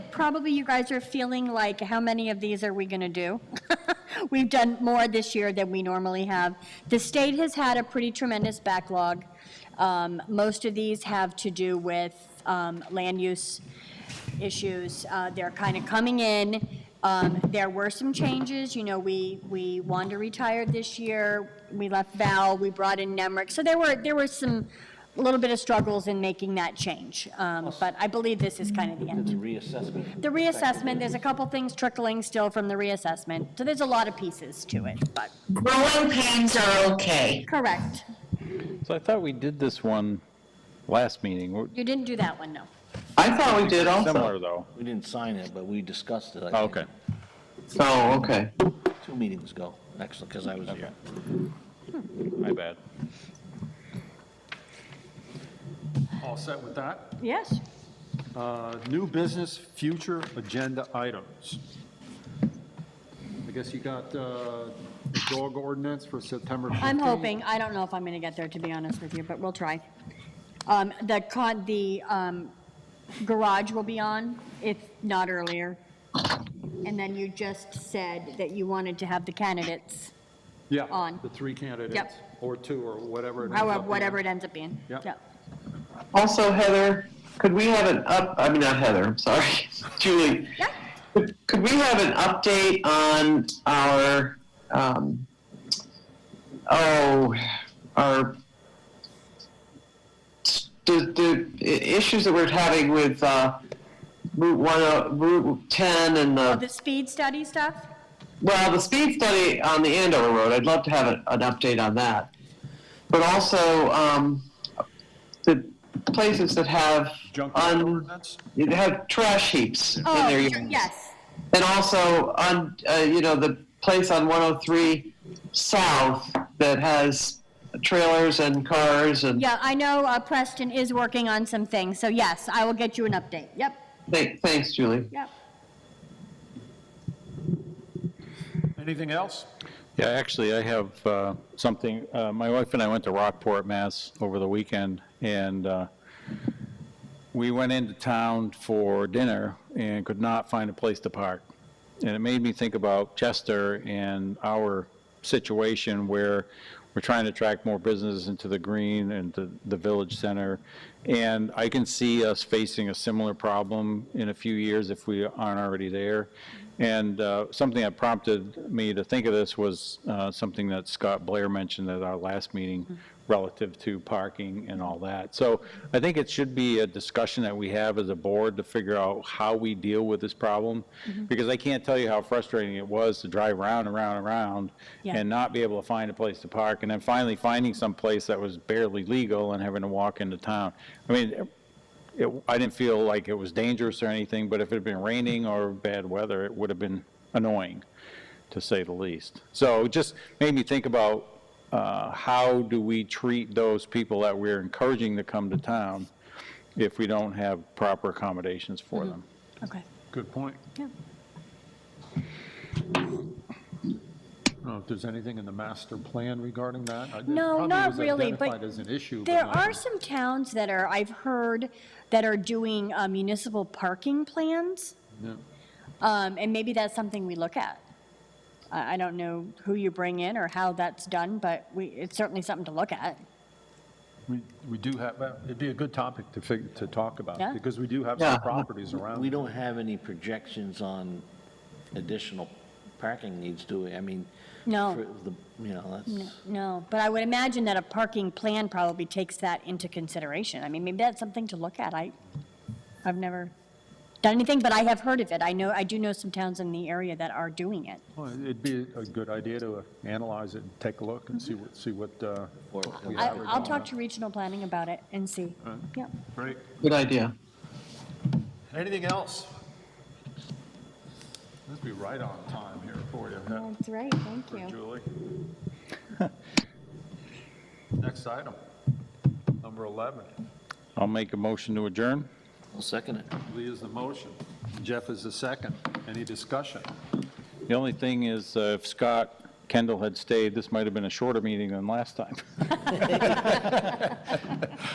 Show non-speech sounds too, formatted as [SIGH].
probably you guys are feeling like, how many of these are we going to do? [LAUGHS] We've done more this year than we normally have. The state has had a pretty tremendous backlog. Um, Most of these have to do with um, land use issues. Uh, They're kind of coming in. Um, There were some changes, you know, we, we Wanda retired this year, we left Val, we brought in Nemrick. So there were, there were some, a little bit of struggles in making that change. Um, But I believe this is kind of the The end. reassessment. The reassessment, there's a couple things trickling still from the reassessment. So there's a lot of pieces to it, but, Growing pains are okay. correct. So I thought we did this one last meeting. We're- You didn't do that one, no. I thought we did Similar, also. though. We didn't sign it, but we discussed it, I Oh, think, Okay. Oh, okay. two meetings ago, actually, because I was here. My bad. All set with that? Yes. Uh, New business, future agenda items. I guess you got uh, the dog ordinance for September 15th? I'm hoping, I don't know if I'm going to get there, to be honest with you, but we'll try. Um, The con, the um, garage will be on, if not earlier. And then you just said that you wanted to have the candidates, Yeah, on. the three candidates, or two, or whatever. it ends up however, being. whatever it ends up being. Yep. Also, Heather, could we have an up, I mean, not Heather, I'm sorry, [LAUGHS] Julie. Yeah. Could could we have an update on our, um, oh, our, the, the i- issues that we're having with, uh, Route one, uh, Route ten and Oh, the, The speed study stuff? well, the speed study on the Andover Road, I'd love to have an, an update on that. But also, um, the places that have Junkyard un, ordinance? you have trash heaps in Oh, their sure, yards. yes. And also on, uh, you know, the place on 103 South that has trailers and cars and Yeah, I know uh, Preston is working on some things, so yes, I will get you an update. Yep, Thank- thanks, Julie. yep. Anything else? Yeah, actually, I have uh, something. Uh, My wife and I went to Rockport, Mass. over the weekend, and uh, we went into town for dinner and could not find a place to park. And it made me think about Chester and our situation where we're trying to attract more business into the green and the, the village center. And I can see us facing a similar problem in a few years if we aren't already there. And uh, something that prompted me to think of this was uh, something that Scott Blair mentioned at our last meeting relative to parking and all that. So I think it should be a discussion that we have as a board to figure out how we deal with this problem, because I can't tell you how frustrating it was to drive around, around, around, Yeah. and not be able to find a place to park, and then finally finding some place that was barely legal and having to walk into town. I mean, it, I didn't feel like it was dangerous or anything, but if it had been raining or bad weather, it would have been annoying, to say the least. So it just made me think about, uh, how do we treat those people that we're encouraging to come to town if we don't have proper accommodations for them? Okay. Good point. Yeah. I don't know if there's anything in the master plan regarding that. I- it No, probably not was really, but identified as an issue. but There not- are some towns that are, I've heard, that are doing uh, municipal parking plans, Yeah. um, and maybe that's something we look at. I, I don't know who you bring in or how that's done, but we, it's certainly something to look at. We, we do have, well, it'd be a good topic to fig, to talk Yeah. about, because we do have Yeah. some properties around. We don't have any projections on additional parking needs, do we? I mean. No. for the- You know, that's, No, but I would imagine that a parking plan probably takes that into consideration. I mean, maybe that's something to look at. I, I've never done anything, but I have heard of it. I know, I do know some towns in the area that are doing it. Well, It'd be a good idea to analyze it and take a look and see what, see what, uh, Or- we I, have or I'll don't talk have. to regional planning about it and see. Yeah. Great. Good idea. Anything else? Let's be right on time here for you, huh, That's right, thank for you. Julie. Next item, number 11. I'll make a motion to adjourn. I'll second it. Lee is the motion. Jeff is the second. Any discussion? The only thing is, uh, if Scott [LAUGHS] Kendall had stayed, this might have been a shorter meeting than last time.